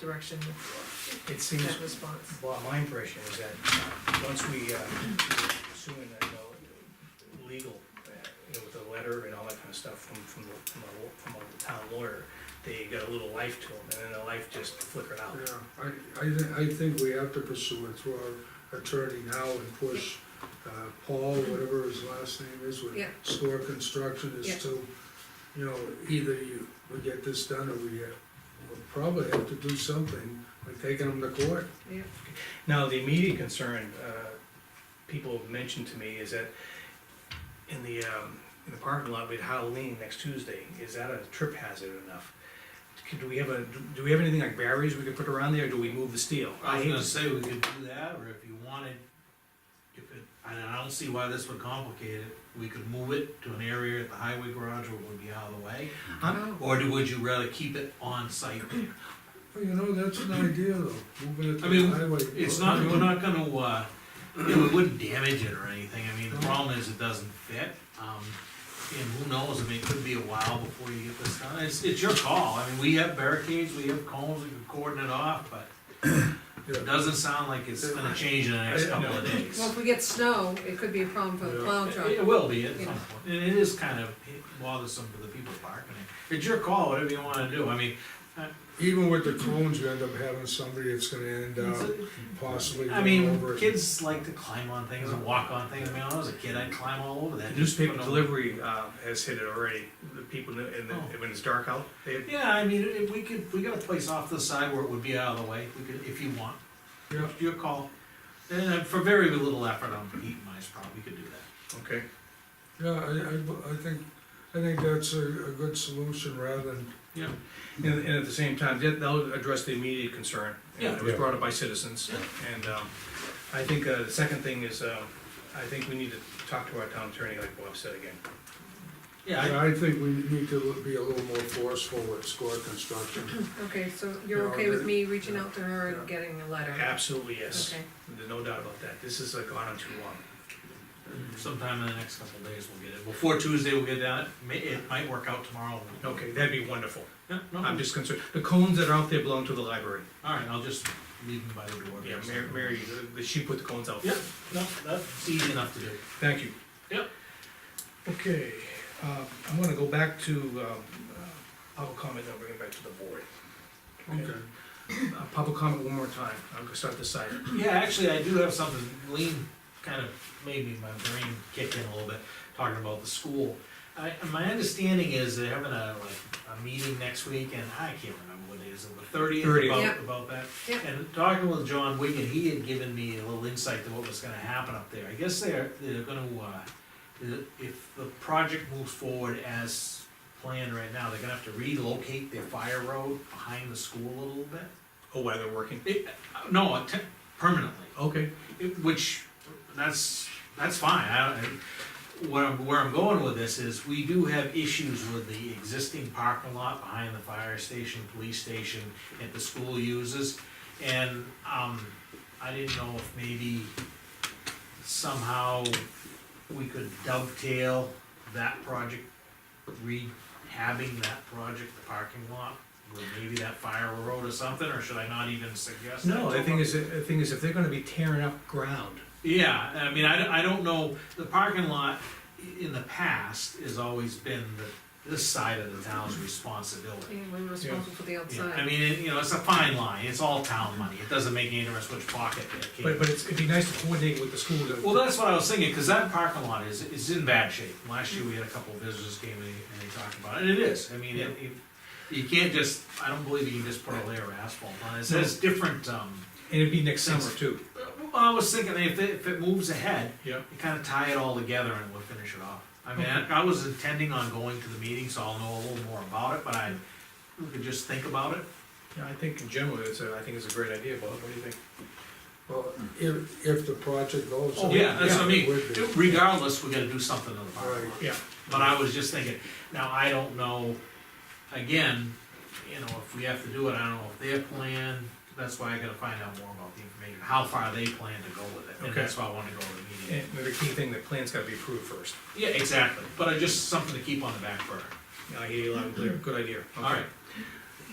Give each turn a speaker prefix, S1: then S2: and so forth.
S1: direction
S2: It
S1: with
S2: seems,
S1: that response.
S2: well, my impression is that, uh, once we, uh, assuming that, you know, legal, uh, you know, with the letter and all that kind of stuff from, from, the- from a, law- from a town lawyer, they got a little life to them, and then the life just flickered out.
S3: Yeah, I, I, thi- I think we have to pursue it through our attorney now and push, uh, Paul, whatever his last name is, with
S1: Yeah.
S3: Store Construction
S1: Yeah.
S3: is to, you know, either you, we get this done or we, uh, we'll probably have to do something, like taking them to court.
S1: Yeah,
S2: Now, the immediate concern, uh, people have mentioned to me is that in the, um, in the parking lot, we had Halloween next Tuesday, is that a trip hazard enough? Could- Do we have a, do we have anything like barriers we could put around there, or do we move the steel?
S4: I was
S2: hate
S4: gonna
S2: to-
S4: say we could do that, or if you wanted, if it, I don't, I don't see why this would complicate it. We could move it to an area at the highway garage where it would be out of the way,
S2: I'm-
S4: or do, would you rather keep it on site there?
S3: Well, you know, that's an idea though, moving it to the
S4: I mean,
S3: highway.
S4: It's not, we're not gonna, uh, you know, it wouldn't damage it or anything, I mean, the
S3: No.
S4: problem is it doesn't fit. Um, and who knows, I mean, it could be a while before you get this done, it's, it's your call, I mean, we have barricades, we have cones, we can cordon it off, but it
S3: Yeah.
S4: doesn't sound like it's gonna change in the next couple of days.
S1: well, if we get snow, it could be a problem for the
S3: Yeah.
S1: plow
S4: It-
S1: truck.
S4: It will be at some
S1: Yeah.
S4: point, and it is kind of bothersome for the people parking it. It's your call, whatever you wanna do, I mean,
S3: Even with the cones, you end up having somebody that's gonna end up
S4: it's-
S3: possibly
S4: I
S3: going over.
S4: mean,
S3: it.
S4: kids like to climb on things and walk on things, I mean, when I was a kid, I'd climb all over that.
S2: The newspaper
S4: But no-
S2: delivery, uh, has hit it already, the people, in the- in the,
S4: Oh.
S2: when it's dark out, they,
S4: Yeah, I mean, if we could, we got a place off to the side where it would be out of the way, we could, if you want,
S3: Yeah.
S4: your call. And uh, for very little effort on Eaton Ice Pond, we could do that.
S2: okay,
S3: Yeah, I, I, I think, I think that's a, a good solution rather than,
S2: and, and at the same time, that, that'll address the immediate concern. And
S4: Yeah.
S2: It was
S3: Yeah.
S2: brought up by citizens, and, um, I think, uh, the second thing is, um, I think we need to talk to our town attorney, like Bob said again.
S4: Yeah,
S3: I think we need to be a little more forceful with score construction.
S1: Okay, so you're
S3: Yeah,
S1: okay with
S3: that-
S1: me reaching out to her
S3: Yeah.
S1: and getting a letter?
S2: Absolutely, yes.
S1: Okay,
S2: There's no doubt about that. This is like gone on too long.
S4: I- sometime in the next couple of days we'll get it, before Tuesday we'll get down, it may, it might work out tomorrow.
S2: Okay, that'd be wonderful.
S4: Yeah, no,
S2: I'm just concerned. The cones that are out there belong to the library.
S4: all right, I'll just leave them by the door.
S2: Yeah, Mary, Mary, the- she put the cones out.
S4: Yeah, no, that's easy enough to do.
S2: Thank you.
S4: Yep.
S2: Okay, uh, I'm gonna go back to, um, uh, public comment, then bring it back to the board.
S3: Okay.
S2: Uh, Public comment one more time. I'm gonna start this side.
S4: Yeah, actually, I do have something, Lean kind of made me, my brain kick in a little bit, talking about the school. I, my understanding is they're having a, like, a meeting next week, and I can't remember what it is, the thirtieth,
S2: 30th.
S4: about,
S1: Yep.
S4: about that.
S1: Yep.
S4: And talking with John Wigan, he had given me a little insight to what was gonna happen up there. I guess they're, they're gonna, uh, if the project moves forward as planned right now, they're gonna have to relocate their fire road behind the school a little bit.
S2: Oh, while they're working.
S4: It, uh, no, te- permanently.
S2: Okay,
S4: It- Which, that's, that's fine, I, I- where I'm, where I'm going with this is, we do have issues with the existing parking lot behind the fire station, police station, that the school uses. And, um, I didn't know if maybe somehow we could dovetail that project, rehabbing that project, the parking lot, with maybe that fire road or something, or should I not even suggest that?
S2: no,
S4: to
S2: the thing
S4: her?
S2: is, the thing is, if they're gonna be tearing up ground,
S4: Yeah, I mean, I, don't- I don't know, the parking lot i- in the past has always been the, this side of the town's responsibility.
S1: Yeah, we're responsible for the
S4: Yeah, I
S1: outside.
S4: mean, it- you know, it's a fine line, it's all town money, it doesn't make any difference which pocket it came
S2: but, but it's, it'd be nice to coordinate with the school to
S4: well, that's what I was thinking, cause that parking lot is, is in bad shape. Last year, we had a couple of visitors came in and they talked about it, and it is, I mean, it, it- you can't just, I don't believe you can just put a layer of asphalt on it, it says different, um,
S2: And it'd be next summer too.
S4: I was thinking, if it, if it moves ahead,
S2: Yeah.
S4: you kind of tie it all together and we'll finish it off. I mean, I, I was intending on going to the meeting, so I'll know a little more about it, but I, we could just think about it.
S2: Yeah, I think in general, it's a, I think it's a great idea, Bob, what do you think?
S3: Well, if, if the project goes.
S4: Oh,
S3: it would be.
S4: Regardless, we gotta do something to the parking lot.
S3: Right.
S2: Yeah,
S4: But I was just thinking, now, I don't know, again, you know, if we have to do it, I don't know if their plan, that's why I gotta find out more about the information, how far they plan to go with it. And
S2: Okay.
S4: that's why I wanna go to the meeting.
S2: and the key thing, the plan's gotta be approved first.
S4: Yeah, exactly, but I just, something to keep on the back burner.
S2: I hear you loud and clear, good idea.
S4: All right,